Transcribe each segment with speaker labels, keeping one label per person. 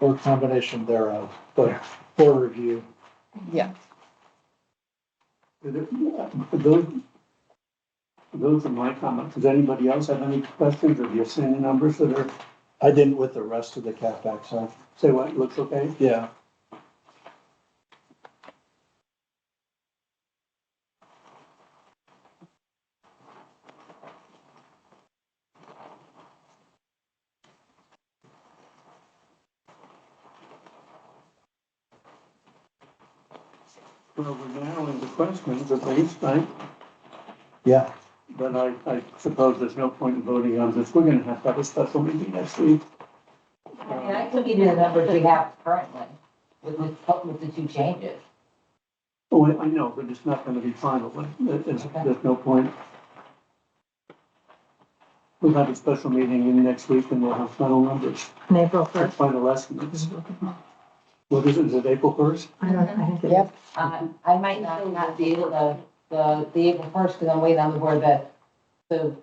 Speaker 1: or combination thereof, but for review.
Speaker 2: Yeah,
Speaker 3: Those, those are my comments. Does anybody else have any questions or you're seeing the numbers that are,
Speaker 1: I didn't with the rest of the CapEx, huh?
Speaker 3: say what, looks okay?
Speaker 1: Yeah.
Speaker 3: Well, we're now into questions at least, right?
Speaker 1: Yeah.
Speaker 3: But I, I suppose there's no point in voting on this. We're gonna have to have a special meeting next week.
Speaker 4: I mean, I can give you the numbers we have currently with, the- with the two changes.
Speaker 3: Oh, I I know, but it's not gonna be final, but it- it's,
Speaker 4: Okay.
Speaker 3: there's no point. We'll have a special meeting in next week and we'll have final numbers,
Speaker 5: in April
Speaker 3: or
Speaker 5: first.
Speaker 3: final estimates. What is it, is it April first?
Speaker 5: I don't, I think it
Speaker 2: Yep.
Speaker 5: is.
Speaker 4: Uh,
Speaker 2: Uh-huh.
Speaker 4: I might not, not be able to, the, the April first, because I'm waiting on the board that, the,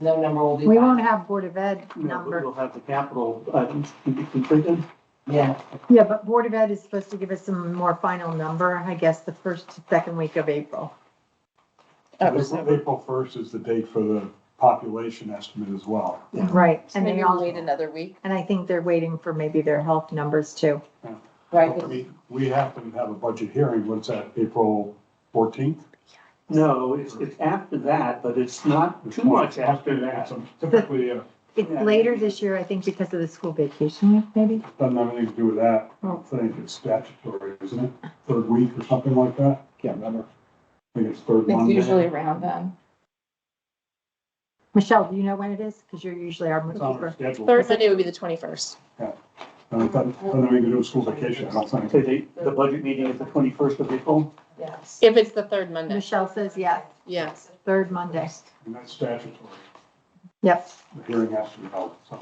Speaker 4: no number will be.
Speaker 5: We
Speaker 4: back.
Speaker 5: won't have Board of Ed
Speaker 3: No, but
Speaker 5: number.
Speaker 3: we'll have the capital items to be completed.
Speaker 4: Yeah,
Speaker 5: Yeah, but Board of Ed is supposed to give us some more final number, I guess, the first, second week of April.
Speaker 2: that was,
Speaker 6: April April first is the date for the population estimate as well.
Speaker 5: Right, and
Speaker 2: maybe
Speaker 5: they
Speaker 2: we'll
Speaker 5: all,
Speaker 2: wait another week.
Speaker 5: and I think they're waiting for maybe their health numbers too.
Speaker 4: right,
Speaker 6: I mean, we happen to have a budget hearing, what's that, April fourteenth?
Speaker 3: No, it's, it's after that, but it's not too much after that.
Speaker 6: Typically, uh,
Speaker 5: It's
Speaker 3: Yeah.
Speaker 5: later this year, I think, because of the school vacation week, maybe?
Speaker 6: doesn't have anything to do with that, I don't think it's statutory, isn't it? Third week or something like that,
Speaker 1: Can't remember.
Speaker 6: I think it's third
Speaker 2: It's
Speaker 6: Monday.
Speaker 2: usually around then.
Speaker 5: Michelle, do you know when it is? Because you're usually our
Speaker 6: It's on our
Speaker 5: bookkeeper.
Speaker 6: schedule.
Speaker 2: Third Monday would be the twenty-first.
Speaker 6: And it doesn't, doesn't have anything to do with school vacation, I don't think.
Speaker 3: So the, the budget meeting is the twenty-first of April.
Speaker 4: yes.
Speaker 2: If it's the third Monday,
Speaker 5: Michelle says yes,
Speaker 2: yes.
Speaker 5: third Monday.
Speaker 6: And that's statutory,
Speaker 5: Yep,
Speaker 6: the hearing has to be held, so.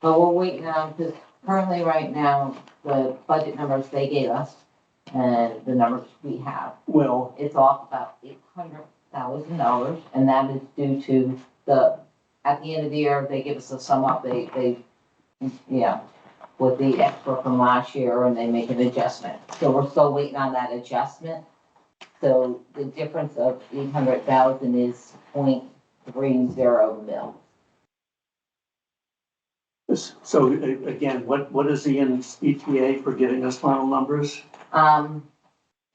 Speaker 4: But we're waiting on, because currently, right now, the budget numbers they gave us and the numbers we have,
Speaker 3: Well,
Speaker 4: it's off about eight hundred thousand dollars, and that is due to the, at the end of the year, they give us a sum up, they, they, yeah, with the extra from last year, and they make an adjustment. So we're still waiting on that adjustment. So the difference of eight hundred thousand is point three zero mil.
Speaker 3: So a- again, what, what is the ETA for getting us final numbers?
Speaker 4: Um,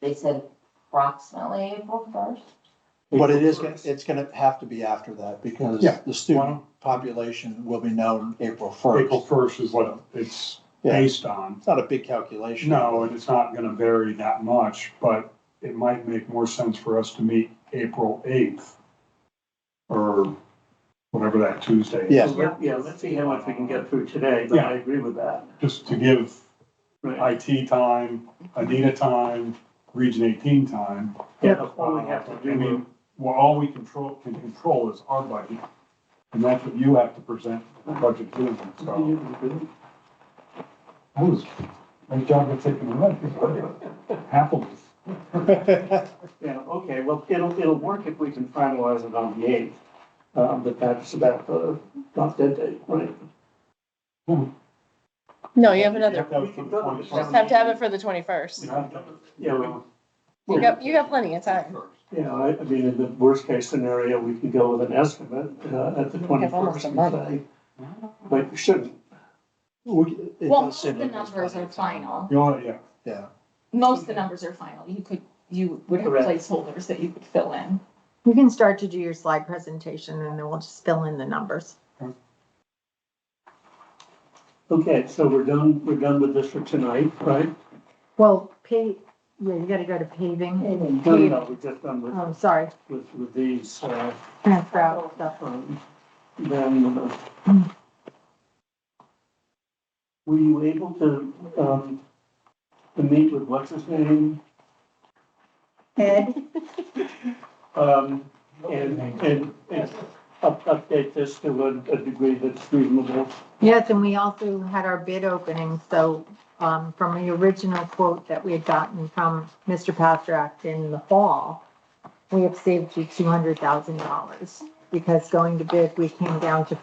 Speaker 4: they said approximately April first.
Speaker 1: But it is,
Speaker 3: April
Speaker 1: gonna-
Speaker 3: first.
Speaker 1: it's gonna have to be after that because
Speaker 6: Yeah.
Speaker 1: the student population will be known April first.
Speaker 6: April first is what it's
Speaker 1: Yeah.
Speaker 6: based on.
Speaker 1: It's not a big calculation.
Speaker 6: No, and it's not gonna vary that much, but it might make more sense for us to meet April eighth. Or whatever that Tuesday is.
Speaker 1: Yeah.
Speaker 3: Let- Yeah, let's see how much we can get through today, but I agree with that.
Speaker 6: Just to give
Speaker 3: Right.
Speaker 6: IT time, Anita time, Region eighteen time.
Speaker 3: Yeah, that's all we have to
Speaker 6: I
Speaker 3: do.
Speaker 6: mean, well, all we control, can control is our budget, and that's what you have to present the budget to them,
Speaker 3: Mm-hmm.
Speaker 6: so. That was, great job of taking a look. Happily.
Speaker 3: Yeah, okay, well, it'll, it'll work if we can finalize it on the eighth. Um, but that's about the, not that day, right?
Speaker 2: No, Oh, you have another,
Speaker 6: That was for the 21st.
Speaker 2: just have to have it for the twenty-first.
Speaker 3: Yeah, we-
Speaker 2: You got, you got plenty of time.
Speaker 3: Yeah, I, I mean, in the worst case scenario, we can go with an estimate, uh, at the
Speaker 2: We have almost
Speaker 3: twenty-first.
Speaker 2: a month.
Speaker 3: But we shouldn't,
Speaker 1: We- it
Speaker 7: Well,
Speaker 1: does
Speaker 7: most
Speaker 1: seem
Speaker 7: of the
Speaker 1: like there's
Speaker 7: numbers
Speaker 1: plenty
Speaker 7: are
Speaker 1: of time.
Speaker 7: final.
Speaker 6: You know, yeah,
Speaker 1: Yeah,
Speaker 7: Most of the numbers are final. You could, you would have
Speaker 3: Correct.
Speaker 7: placeholders that you could fill in.
Speaker 5: you can start to do your slide presentation and then we'll just fill in the numbers.
Speaker 3: Okay, so we're done, we're done with this for tonight, right?
Speaker 5: Well, pay, yeah, you gotta go to paving.
Speaker 3: No, no, no, we're just done with,
Speaker 5: Oh, sorry,
Speaker 3: with, with these, uh,
Speaker 5: transfer out stuff.
Speaker 3: um, then. uh, Were you able to, um, to meet with what's his name?
Speaker 7: Ed?
Speaker 3: Um, and, and, and up- update this to a, a degree that's reasonable.
Speaker 5: Yes, and we also had our bid opening, so, um, from the original quote that we had gotten from Mr. Pasternak in the fall, we have saved you two hundred thousand dollars, because going to bid, we came down to